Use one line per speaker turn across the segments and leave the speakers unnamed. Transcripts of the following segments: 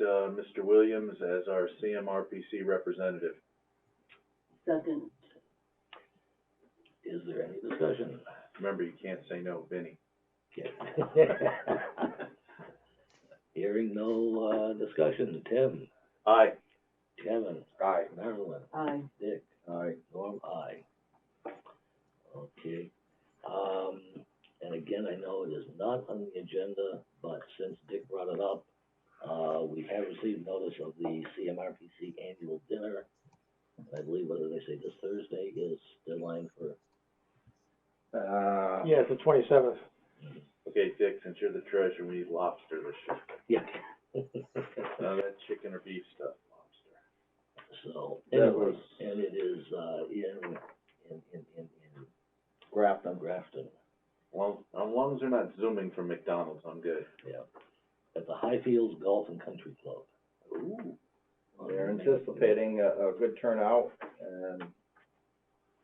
uh, Mr. Williams as our CMRPC representative.
Second.
Is there any discussion?
Remember, you can't say no, Vinnie.
Hearing no, uh, discussion, Tim,
Aye.
Kevin. Aye. Marilyn,
Aye.
Dick,
Aye.
Norm, aye. Okay, um, and again, I know it is not on the agenda, but since Dick brought it up, uh, we have received notice of the CMRPC annual dinner. I believe, what did they say, this Thursday is deadline for,
Uh,
Yeah, it's the twenty-seventh.
okay, Dick, since you're the treasurer, we need lobster this year.
yeah.
None of that chicken or beef stuff, lobster.
So,
That
anyway,
was-
and it is, uh, in, in, in, in, in. Grafton. Grafton,
Well, as long as they're not zooming from McDonald's, I'm good.
yeah. At the Highfields Golf and Country Club.
Ooh.
They're anticipating a, a good turnout and,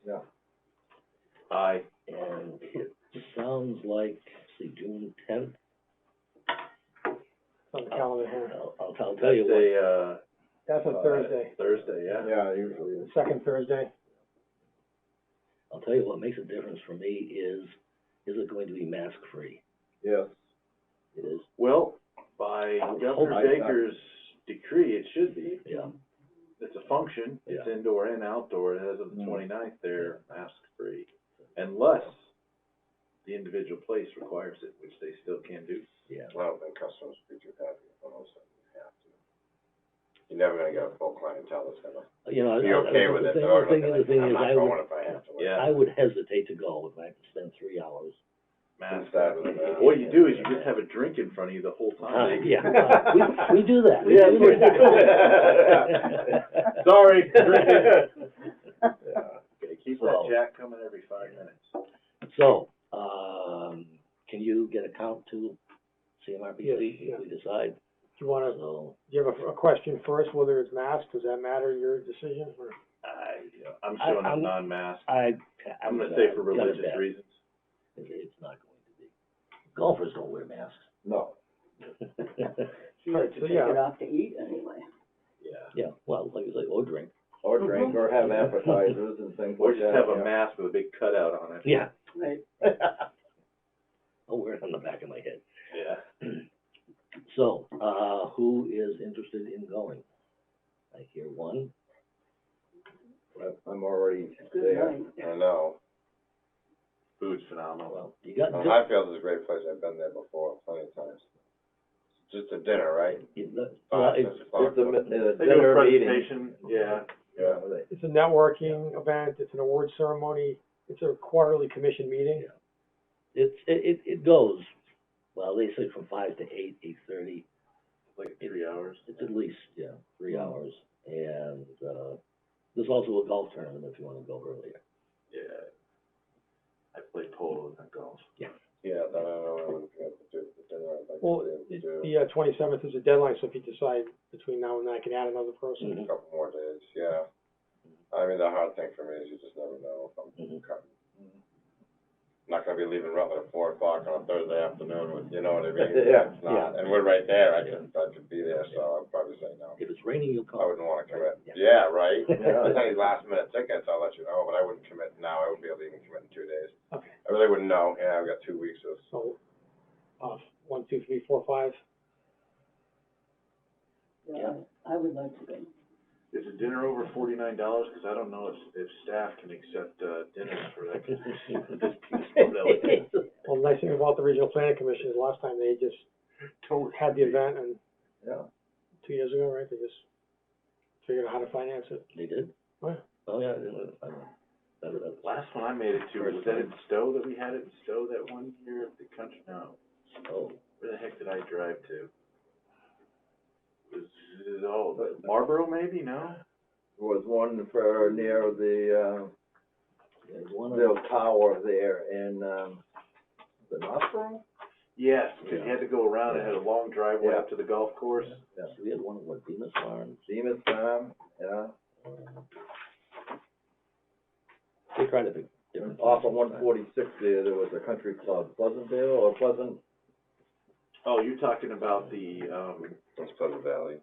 yeah.
Aye.
And it sounds like, let's see, June tenth,
It's on the calendar here.
I'll, I'll, I'll
That's
tell you what.
a, uh.
That's
uh,
a Thursday,
Thursday, yeah.
Yeah, usually
the
it's.
second Thursday.
I'll tell you what makes a difference for me is, is it going to be mask free?
Yes.
It is,
Well, by
I would hope
Governor
Oh, I-
Baker's decree, it should be.
yeah,
It's a function. It's indoor and outdoor. As of the
Mm.
29th, they're mask free. Unless the individual place requires it, which they still can do.
yeah.
Well, then customers would be too happy if all of a sudden you have to. You're never gonna get a full clientele that's gonna
You know, I-
be
I-
okay
the
with it.
thing-
They're
The
gonna
thing,
be
the
like,
thing is, I
I'm not going
would,
if I have to.
Yeah.
I would hesitate to go if I had to spend three hours.
Mask.
That was, uh,
What you do is you just have a drink in front of you the whole
Uh,
time.
yeah, we, we do that.
Yeah, we
do.
Sorry. Gotta
Yeah.
keep that jack coming every five minutes.
So, um, can you get a count to CMRPC
Yes, yeah.
if we decide?
Do you wanna, do
So,
you have a, a question first, whether it's masked, does that matter, your decision, or?
I, I'm
I-
showing a
I'm-
non-mask.
I,
I'm
I'm
gonna say for
I'm gonna
religious
bet
reasons.
it- It's not going to be. Golfers don't wear masks.
No,
You have to
So,
take it
yeah.
off to eat anyway.
Yeah.
Yeah, well, like you say, or drink.
or drink, or have appetizers and things
Or
like
just
that.
have a
yeah.
mask with a big cutout on it.
Yeah,
Right.
I'll wear it on the back of my head.
Yeah.
So, uh, who is interested in going? I hear one.
I'm already
Good
there.
night.
I know.
Food's phenomenal.
Well, you got, Dick-
Highfield is a great place. I've been there before plenty of times. It's Just a dinner, right?
you know, well,
Five,
it-
six o'clock.
It's a, mi- a
They do a
dinner meeting.
presentation, yeah.
Yeah, they-
It's a networking event, it's an award ceremony, it's a quarterly commission meeting.
it's, it, it- it goes, well, they say from five to eight, eight-thirty.
like three hours.
It's at least, yeah, three hours, and, uh, there's also a golf tournament if you wanna go earlier.
Yeah. I play polo and golf.
Yeah, then I don't know what I'm gonna do for dinner. I'd like
Well,
to be
it-
able to do
the, uh, twenty-seventh is a deadline, so if you decide between now and then, I can add another person.
Mm-hmm.
a couple more days, yeah. I mean, the hard thing for me is you just never know if I'm
Mm-hmm.
Mhm.
cutting. Not gonna be leaving Rutland at four o'clock on a Thursday afternoon, with- you know what I mean?
Yeah,
It's not, and we're right there, I could, I could be there, so I'd probably say no.
If it's raining, you'll
I
come.
wouldn't wanna commit,
Yeah.
yeah, right?
Yeah.
If there's any last minute tickets, I'll let you know, but I wouldn't commit now, I wouldn't be able to even commit in two days.
Okay,
I really wouldn't know, yeah, I've got two weeks of,
so, uh, one, two, three, four, five.
Yeah, I would like to go.
Is a dinner over forty-nine dollars? Cause I don't know if, if staff can accept, uh, dinners for that. This peaceful village.
Well, the nice thing about the regional planning commission is last time they just had the event and
yeah.
two years ago, right, they just figured out how to finance it.
They did?
What?
Oh, yeah, I didn't, I don't, that, that,
Last one I made it to, was that in Stowe that we had it in Stowe that one year of the country? No,
oh,
where the heck did I drive to? It Was, it- oh, but Marlboro maybe? No?
There was one for near the,
there's
uh,
one, of-
little tower there in, um, the Knoxville?
Yes, cause you had to go around. It had a long driveway up to the golf course.
Yeah,
we had one at what, Bemis Farm?
Seamus Farm, yeah.
They tried to pick different.
Off of one forty-six there, there was a country club, Pleasantville or Pleasant,
Oh, you're talking about the, um,
it's Pleasant Valley.